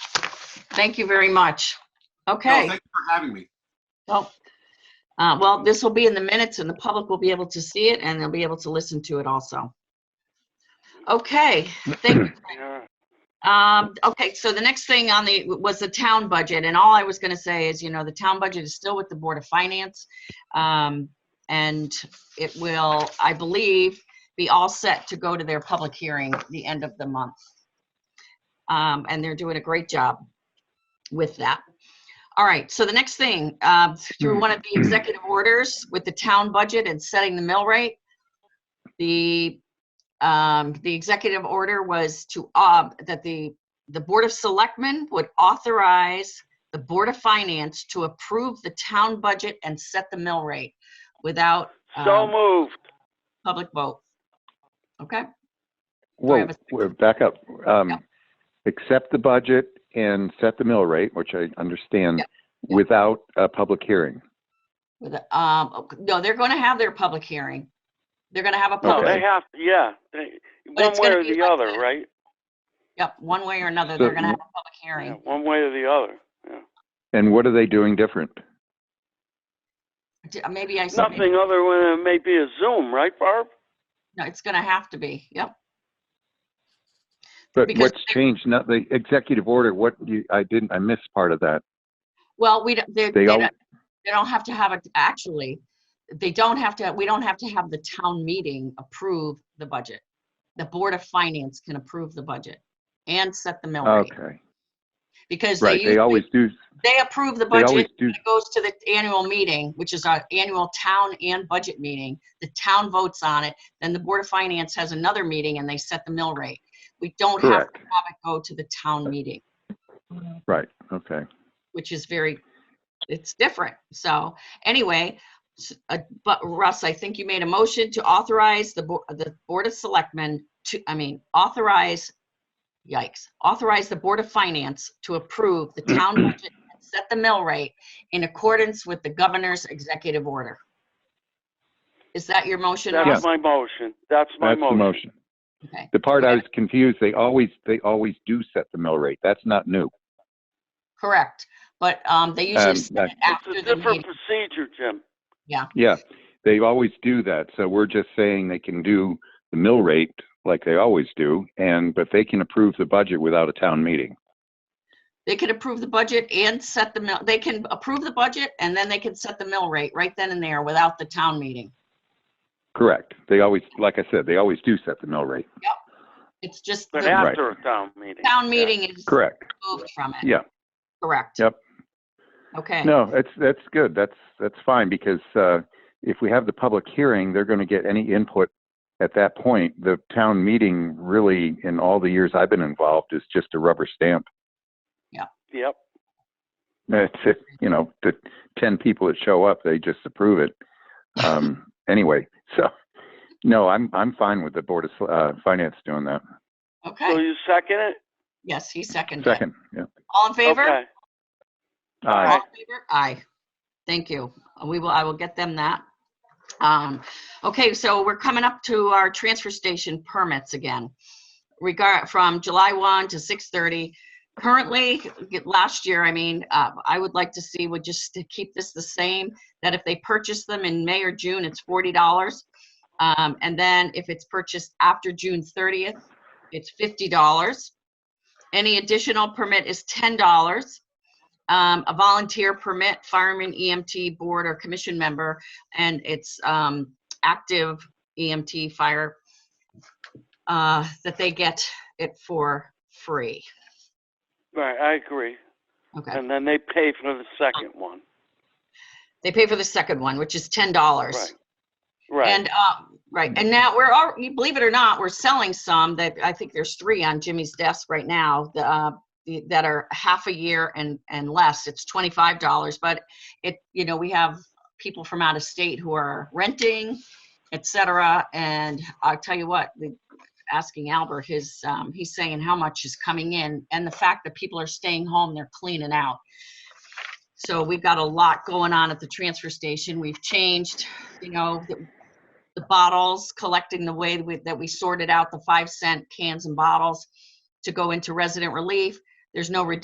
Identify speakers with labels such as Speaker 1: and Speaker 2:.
Speaker 1: Thank you very much.
Speaker 2: No,
Speaker 1: Okay,
Speaker 2: Thank you for having me.
Speaker 1: well, uh, well, this will be in the minutes and the public will be able to see it and they'll be able to listen to it also. Okay, thank you.
Speaker 3: Yeah,
Speaker 1: Um, okay, so the next thing on the, was the town budget, and all I was gonna say is, you know, the town budget is still with the Board of Finance. Um, and it will, I believe, be all set to go to their public hearing the end of the month. Um, and they're doing a great job with that. All right, so the next thing, uh, through one of the executive orders with the town budget and setting the mill rate, the um, the executive order was to, uh, that the, the Board of Selectmen would authorize the Board of Finance to approve the town budget and set the mill rate without,
Speaker 3: so
Speaker 1: um,
Speaker 3: moved.
Speaker 1: public vote. Okay, I
Speaker 4: Whoa,
Speaker 1: have a second?
Speaker 4: we're back up. Um,
Speaker 1: Yeah.
Speaker 4: accept the budget and set the mill rate, which I understand,
Speaker 1: Yeah, yeah.
Speaker 4: without a public hearing.
Speaker 1: with, um, no, they're gonna have their public hearing. They're gonna have a
Speaker 3: No,
Speaker 1: public,
Speaker 3: they
Speaker 4: Okay.
Speaker 3: have, yeah, they- one
Speaker 1: it's
Speaker 3: way
Speaker 1: gonna
Speaker 3: or
Speaker 1: be
Speaker 3: the
Speaker 1: like
Speaker 3: other,
Speaker 1: that.
Speaker 3: right?
Speaker 1: yep, one way or another, they're
Speaker 4: So-
Speaker 1: gonna have a public
Speaker 3: Yeah,
Speaker 1: hearing.
Speaker 3: One way or the other, yeah.
Speaker 4: And what are they doing different?
Speaker 1: D- uh, Maybe I said,
Speaker 3: Nothing other than it may be a Zoom, right, Barb?
Speaker 1: no, it's gonna have to be, yep.
Speaker 4: But
Speaker 1: Because
Speaker 4: what's changed? Not the executive order, what you, I didn't, I missed part of that.
Speaker 1: Well, we, don't- they,
Speaker 4: They
Speaker 1: they
Speaker 4: all-
Speaker 1: don't, they don't have to have it, actually, they don't have to, we don't have to have the town meeting approve the budget. The Board of Finance can approve the budget and set the mill rate,
Speaker 4: Okay,
Speaker 1: because they
Speaker 4: right, they
Speaker 1: usually,
Speaker 4: always do,
Speaker 1: they approve the
Speaker 4: they
Speaker 1: budget,
Speaker 4: always do,
Speaker 1: it goes to the annual meeting, which is our annual town and budget meeting. The town votes on it, then the Board of Finance has another meeting and they set the mill rate. We don't have
Speaker 4: correct,
Speaker 1: to have it go to the town meeting.
Speaker 4: right, okay.
Speaker 1: which is very, it's different. So anyway, s- uh, but Russ, I think you made a motion to authorize the, Bo- the Board of Selectmen to, I mean, authorize, yikes, authorize the Board of Finance to approve the town budget and set the mill rate in accordance with the governor's executive order. Is that your motion, Russ?
Speaker 3: That's my motion, that's my
Speaker 4: That's the
Speaker 3: motion.
Speaker 4: motion.
Speaker 1: Okay.
Speaker 4: The part I was confused, they always, they always do set the mill rate, that's not new.
Speaker 1: Correct. But um, they
Speaker 4: Um,
Speaker 1: usually set it after
Speaker 3: It's a
Speaker 1: the
Speaker 3: different
Speaker 1: meeting.
Speaker 3: procedure, Jim.
Speaker 4: Yeah, they always do that. So we're just saying they can do the mill rate like they always do, and, but they can approve the budget without a town meeting.
Speaker 1: They can approve the budget and set the mill, they can approve the budget and then they can set the mill rate right then and there without the town meeting.
Speaker 4: Correct. They always, like I said, they always do set the mill rate.
Speaker 1: It's just
Speaker 3: But
Speaker 1: the
Speaker 3: after a town meeting.
Speaker 1: town
Speaker 3: yeah.
Speaker 1: meeting is
Speaker 4: Correct.
Speaker 1: removed from it.
Speaker 4: Yeah.
Speaker 1: Correct.
Speaker 4: Yep.
Speaker 1: Okay,
Speaker 4: No, that's, that's good. That's, that's fine because, uh, if we have the public hearing, they're going to get any input at that point. The town meeting really, in all the years I've been involved, is just a rubber stamp.
Speaker 3: Yep,
Speaker 4: It's, it- you know, the 10 people that show up, they just approve it. Um, anyway, so, no, I'm, I'm fine with the Board of, Sel- uh, Finance doing that.
Speaker 3: so
Speaker 1: okay.
Speaker 3: you second it?
Speaker 1: Yes, he seconded it.
Speaker 4: Second, yeah.
Speaker 1: All in favor?
Speaker 3: Okay.
Speaker 1: All
Speaker 4: Aye.
Speaker 1: in favor? Aye. Thank you. We will, I will get them that. Um, okay, so we're coming up to our transfer station permits again. Regard, from July 1 to 6:30. Currently, last year, I mean, uh, I would like to see, would just to keep this the same, that if they purchase them in May or June, it's $40. Um, and then if it's purchased after June 30th, it's $50. Any additional permit is $10 um, a volunteer permit, fireman, EMT, board or commission member, and it's, um, active EMT fire, uh, that they get it for free.
Speaker 3: Right, I agree.
Speaker 1: Okay.
Speaker 3: And then they pay for the second one.
Speaker 1: They pay for the second one, which is ten dollars.
Speaker 3: Right, right.
Speaker 1: And, uh, right, and now we're, al- you believe it or not, we're selling some that, I think there's three on Jimmy's desk right now, the, uh, the- that are half a year and, and less. It's twenty-five dollars, but it, you know, we have people from out of state who are renting, et cetera, and I'll tell you what, the, asking Albert, his, um, he's saying how much is coming in, and the fact that people are staying home, they're cleaning out. So we've got a lot going on at the transfer station. We've changed, you know, the- the bottles, collecting the way that we- that we sorted out the five cent cans and bottles to go into resident relief. There's no redemption